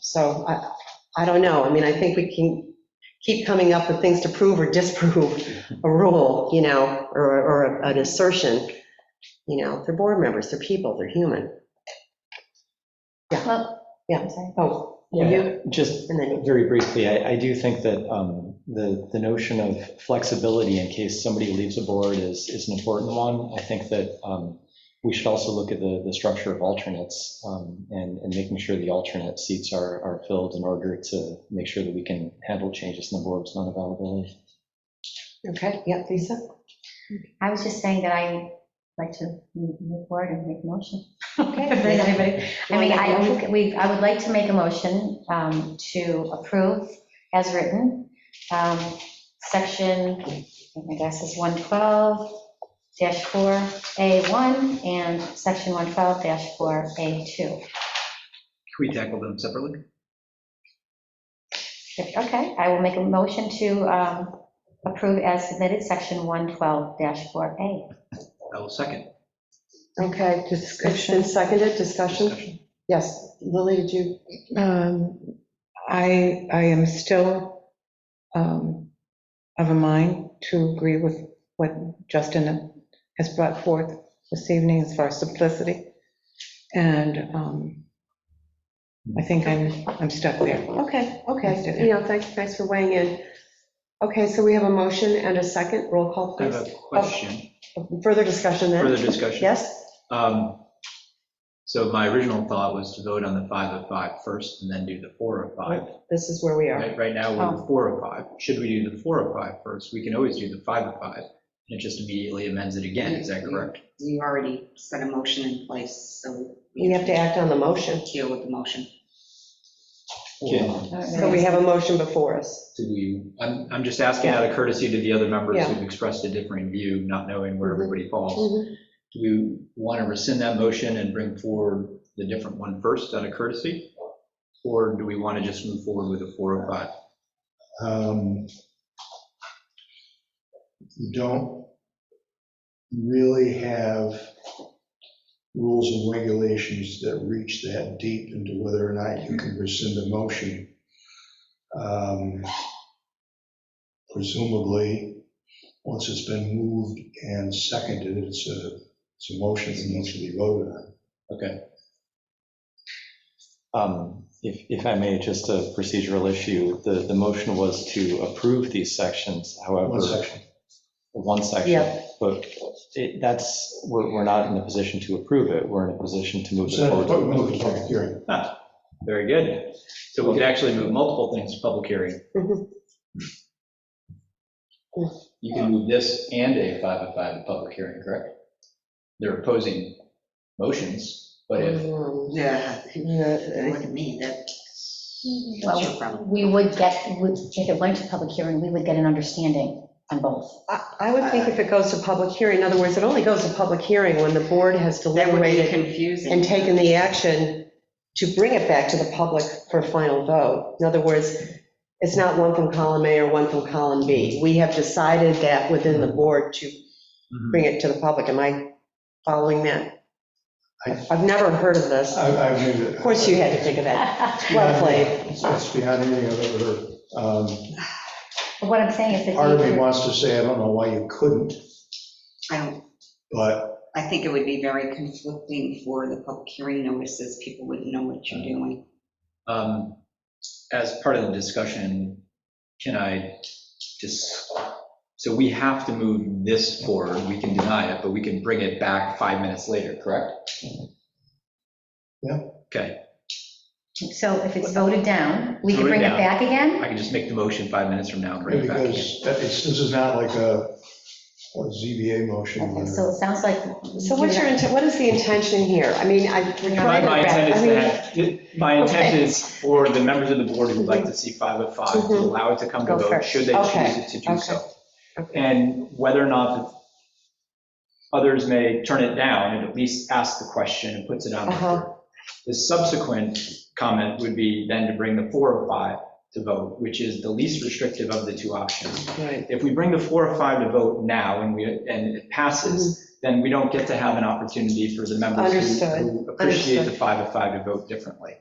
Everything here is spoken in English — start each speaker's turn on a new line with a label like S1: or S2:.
S1: So I, I don't know. I mean, I think we can keep coming up with things to prove or disprove a rule, you know, or, or an assertion. You know, they're board members, they're people, they're human.
S2: Well,
S1: Yeah.
S2: I'm sorry.
S1: Oh,
S3: Yeah,
S1: you,
S3: just
S1: and then you.
S3: very briefly, I, I do think that um, the, the notion of flexibility in case somebody leaves a board is, is an important one. I think that um, we should also look at the, the structure of alternates um, and, and making sure the alternate seats are, are filled in order to make sure that we can handle changes in the board's non-availability.
S1: Okay, yeah, Lisa?
S2: I was just saying that I like to move forward and make a motion.
S1: Okay.
S2: If there's anybody- I mean, I
S1: Wanna-
S2: think we, I would like to make a motion um, to approve as written, um, section, I guess is 112-4A1 and section 112-4A2.
S4: Can we tackle them separately?
S2: Okay, I will make a motion to um, approve as submitted, section 112-4A.
S4: I will second.
S1: Okay, dis- it's been seconded, discussion? Yes, Lily, did you?
S5: Um, I, I am still um, of a mind to agree with what Justin has brought forth this evening as far as simplicity. And um, I think I'm, I'm stuck there.
S1: Okay,
S5: Let's do that.
S1: okay, you know, thanks, thanks for weighing in. Okay, so we have a motion and a second, roll call,
S4: I have a
S1: please.
S4: question,
S1: Further discussion
S4: further
S1: then?
S4: discussion.
S1: Yes?
S4: Um, So my original thought was to vote on the five of five first and then do the four of five.
S1: This is where we are.
S4: Right right now, we're
S1: Oh.
S4: the four of five. Should we do the four of five first? We can always do the five of five. And it just immediately amends it again, is that correct?
S6: You already set a motion in place, so
S1: We have to act on the motion.
S6: deal with the motion.
S3: Yeah.
S1: So we have a motion before us.
S4: Do we, I'm, I'm just asking out of courtesy to the other members
S1: Yeah.
S4: who've expressed a differing view, not knowing where
S1: Mhm.
S4: everybody falls. Do we want to rescind that motion and bring forward the different one first out of courtesy? Or do we want to just move forward with the 405?
S7: um, You don't really have rules and regulations that reach that deep into whether or not you can rescind a motion. Um, Presumably, once it's been moved and seconded, it's a, it's a motion that needs to be voted on.
S4: Okay,
S3: Um, If, if I may, just a procedural issue, the, the motion was to approve these sections, however.
S7: One section.
S3: one section,
S1: Yeah.
S3: but it- that's, we're, we're not in a position to approve it, we're in a position to move it
S7: So,
S3: forward. to
S7: vote, move
S3: public
S7: to public
S3: hearing.
S7: hearing.
S4: very good. So we could actually move multiple things to public hearing.
S1: Mhm.
S4: You can move this and a 505 to public hearing, correct? They're opposing motions, but if
S1: Um,
S6: Yeah,
S1: yeah,
S6: look at me, that's that's your
S2: Well,
S6: problem.
S2: we would get, would- if it went to public hearing, we would get an understanding on both.
S1: I I would think if it goes to public hearing, in other words, it only goes to public hearing when the board has
S6: That would be
S1: deliberated
S6: confusing.
S1: and taken the action to bring it back to the public for final vote. In other words, it's not one from column A or one from column B. We have decided that within the board to bring it to the public. Am I following that?
S7: I-
S1: I've never heard of this.
S7: I, I agree with it.
S1: Of course, you had to think of that. Well played.
S7: It's it's beyond anything I've ever heard. Um,
S2: But What I'm saying is that.
S7: Part of
S2: they-
S7: me wants to say, I don't know why you couldn't,
S6: I don't,
S7: but
S6: I think it would be very conflicting for the public hearing notices, people wouldn't know what you're doing.
S4: Um, As part of the discussion, can I just, so we have to move this forward, we can deny it, but we can bring it back five minutes later, correct?
S7: Yeah.
S4: Okay,
S2: So if it's voted down, we could
S4: Voted
S2: bring it
S4: down.
S2: back again?
S4: I can just make the motion five minutes from now and bring it back again.
S7: because that- it's, this is not like a a ZBA motion.
S2: Okay,
S7: where-
S2: So it sounds like.
S1: So what's your, inten- what is the intention here? I mean, I. we're trying
S4: My
S1: to
S4: my intent
S1: back- I
S4: is
S1: mean,
S4: that, my intent is for the members of the board who'd like to see five of five, to
S1: Mhm.
S4: allow it to come to
S1: Go
S4: vote,
S1: first.
S4: should they
S1: Okay,
S4: choose it to do so.
S1: okay.
S4: And whether or not others may turn it down, it at least asks the question and puts it on
S1: Uh-huh.
S4: record. The subsequent comment would be then to bring the four or five to vote, which is the least restrictive of the two options.
S1: Right.
S4: If we bring the four or five to vote now and we, and it passes, then we don't get to have an opportunity for the members who-
S1: Mm-hmm. Understood,
S4: who appreciate the
S1: understood.
S4: five of five to vote differently.